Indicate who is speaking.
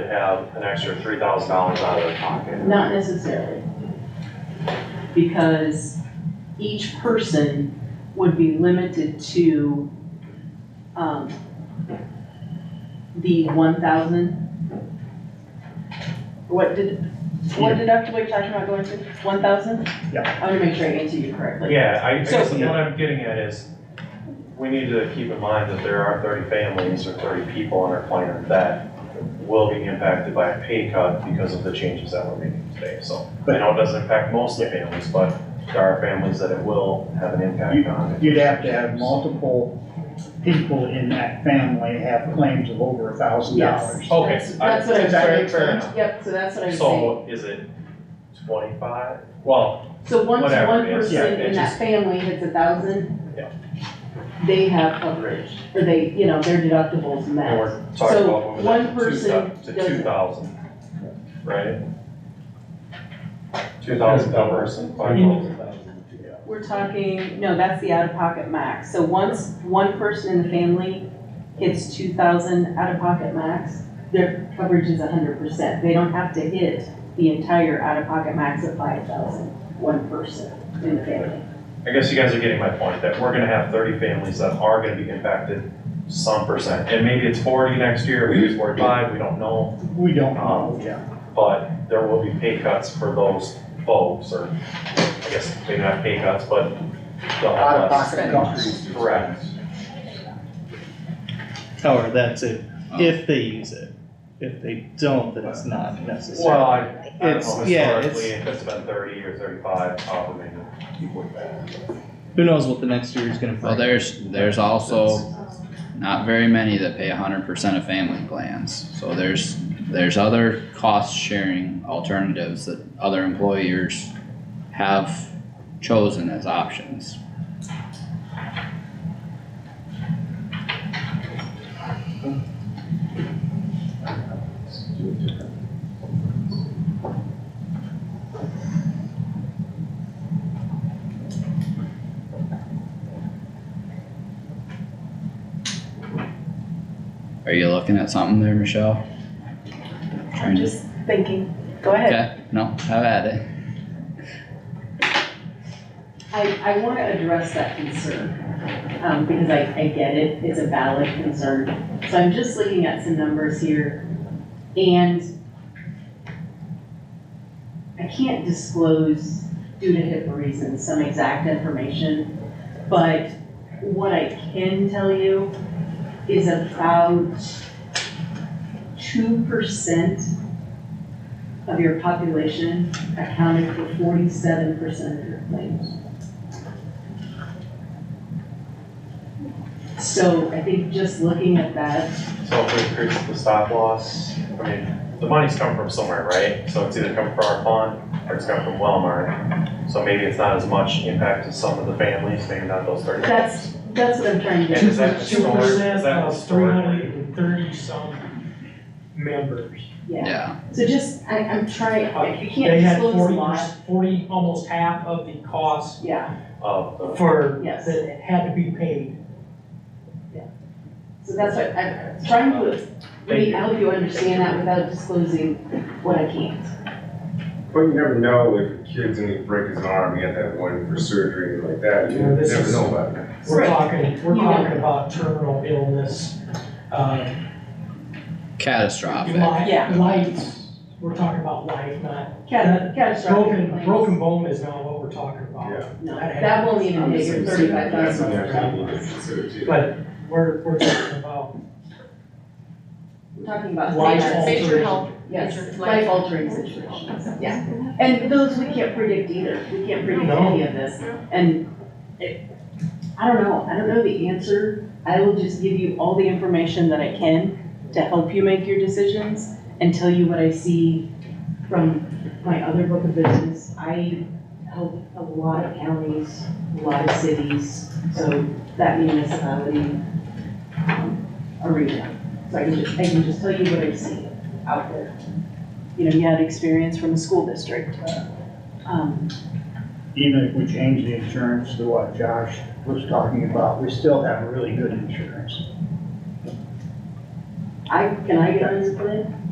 Speaker 1: to have an extra three thousand dollars out of their pocket.
Speaker 2: Not necessarily. Because each person would be limited to, um, the one thousand. What did, what deductible you're talking about going to, one thousand?
Speaker 3: Yeah.
Speaker 2: I wanna make sure I answer you correctly.
Speaker 1: Yeah, I, I
Speaker 2: So-
Speaker 1: guess what I'm getting at is, we need to keep in mind that there are thirty families or thirty people on our planet that will be impacted by a pay cut because of the changes that we're making today, so. I know it doesn't impact most of the families, but there are families that it will have an impact on.
Speaker 3: You'd have to have multiple people in that family have claims of over a thousand dollars.
Speaker 2: Yes.
Speaker 1: Okay,
Speaker 2: That's-
Speaker 1: I-
Speaker 2: That's what I'm
Speaker 3: does that
Speaker 2: saying.
Speaker 3: make sense?
Speaker 2: Yep, so that's what I'm saying.
Speaker 1: So is it twenty-five? Well,
Speaker 2: So once one
Speaker 1: whatever it is, yeah,
Speaker 2: person
Speaker 1: it
Speaker 2: in that
Speaker 1: just-
Speaker 2: family hits a thousand.
Speaker 1: Yeah.
Speaker 2: They have coverage, or they, you know, their deductibles
Speaker 1: and
Speaker 2: match.
Speaker 1: we're talking
Speaker 2: So
Speaker 1: about moving
Speaker 2: one
Speaker 1: that to two
Speaker 2: person
Speaker 1: thou- to
Speaker 2: doesn't.
Speaker 1: two thousand, right? Two thousand per person, five thousand.
Speaker 2: We're talking, no, that's the out-of-pocket max. So once one person in the family hits two thousand out-of-pocket max, their coverage is hundred percent. They don't have to hit the entire out-of-pocket max of five thousand, one person in the family.
Speaker 1: I guess you guys are getting my point, that we're gonna have thirty families that are gonna be impacted some percent, and maybe it's forty next year, maybe it's forty-five, we don't know,
Speaker 3: We don't know, yeah.
Speaker 1: but there will be pay cuts for those folks, or I guess maybe not pay cuts, but they'll
Speaker 3: Out of
Speaker 1: have less.
Speaker 3: pocket costs.
Speaker 1: Correct.
Speaker 4: However, that's it,
Speaker 5: Oh.
Speaker 4: if they use it. If they don't, then it's not
Speaker 1: Well,
Speaker 4: necessary.
Speaker 1: I, I don't
Speaker 4: It's-
Speaker 5: uh,
Speaker 1: know,
Speaker 4: yeah, it's-
Speaker 1: historically, if it's been thirty or thirty-five, probably
Speaker 4: Who knows what the next year is gonna
Speaker 6: Well,
Speaker 4: bring?
Speaker 6: there's, there's also not very many that pay hundred percent of family plans, so there's, there's other cost sharing alternatives that other employers have chosen as options. Are you looking at something there, Michelle?
Speaker 2: I'm just thinking, go ahead.
Speaker 6: Okay, no, have at it.
Speaker 2: I, I wanna address that concern, um, because I, I get it, it's a valid concern. So I'm just looking at some numbers here, and I can't disclose due to HIPAA reasons, some exact information, but what I can tell you is about two percent of your population accounted for forty-seven percent of your claims. So I think just looking at that,
Speaker 1: So if we increase the stop loss, I mean, the money's come from somewhere, right? So it's either come from our fund or it's come from Wellmark. So maybe it's not as much impact to some of the families, maybe not those thirty.
Speaker 2: that's, that's what I'm trying to
Speaker 1: And
Speaker 2: get.
Speaker 1: is that
Speaker 5: Two
Speaker 1: historic, is
Speaker 5: percent
Speaker 1: that
Speaker 5: of three
Speaker 1: historically?
Speaker 5: hundred and thirty some members.
Speaker 2: Yeah,
Speaker 6: Yeah,
Speaker 2: so just, I, I'm trying, I- you
Speaker 5: They
Speaker 2: can't
Speaker 5: had
Speaker 2: disclose a
Speaker 5: forty,
Speaker 2: lot.
Speaker 5: forty, almost half of the cost
Speaker 2: Yeah,
Speaker 1: Of the,
Speaker 5: for,
Speaker 2: Yes.
Speaker 5: that had to be paid.
Speaker 2: so that's what, I'm trying to, really help you understand that without disclosing what I can't.
Speaker 7: But you never know if a kid's gonna break his arm, he had that one for surgery and like that, you
Speaker 5: Yeah, this
Speaker 7: never
Speaker 5: is-
Speaker 7: know about that.
Speaker 5: We're
Speaker 2: Right.
Speaker 5: talking, we're
Speaker 2: You know.
Speaker 5: talking about terminal illness, uh,
Speaker 6: catastrophic.
Speaker 2: Yeah.
Speaker 5: life, life, we're talking about life, not,
Speaker 2: Cat- Catastrophic
Speaker 5: broken,
Speaker 2: claims.
Speaker 5: broken bone is not what we're talking about.
Speaker 7: Yeah.
Speaker 2: No, that won't even hit your thirty-five
Speaker 7: That's
Speaker 2: thousand.
Speaker 7: something you actually need to consider too.
Speaker 5: But we're, we're talking about
Speaker 2: We're talking about.
Speaker 5: life
Speaker 2: major-
Speaker 5: altering.
Speaker 8: Major health,
Speaker 2: Yes,
Speaker 8: Like-
Speaker 2: life altering situations, yeah. And those we can't predict either, we can't predict
Speaker 5: No.
Speaker 2: any of this. And it, I don't know, I don't know the answer. I will just give you all the information that I can to help you make your decisions and tell you what I see from my other book of business. I help a lot of counties, a lot of cities, so that municipality um, arena. So I can just, I can just tell you what I see out there. You know, you had experience from a school district. Um,
Speaker 3: Even if we change the insurance to what Josh was talking about, we still have really good insurance.
Speaker 2: I, can I get on this plan?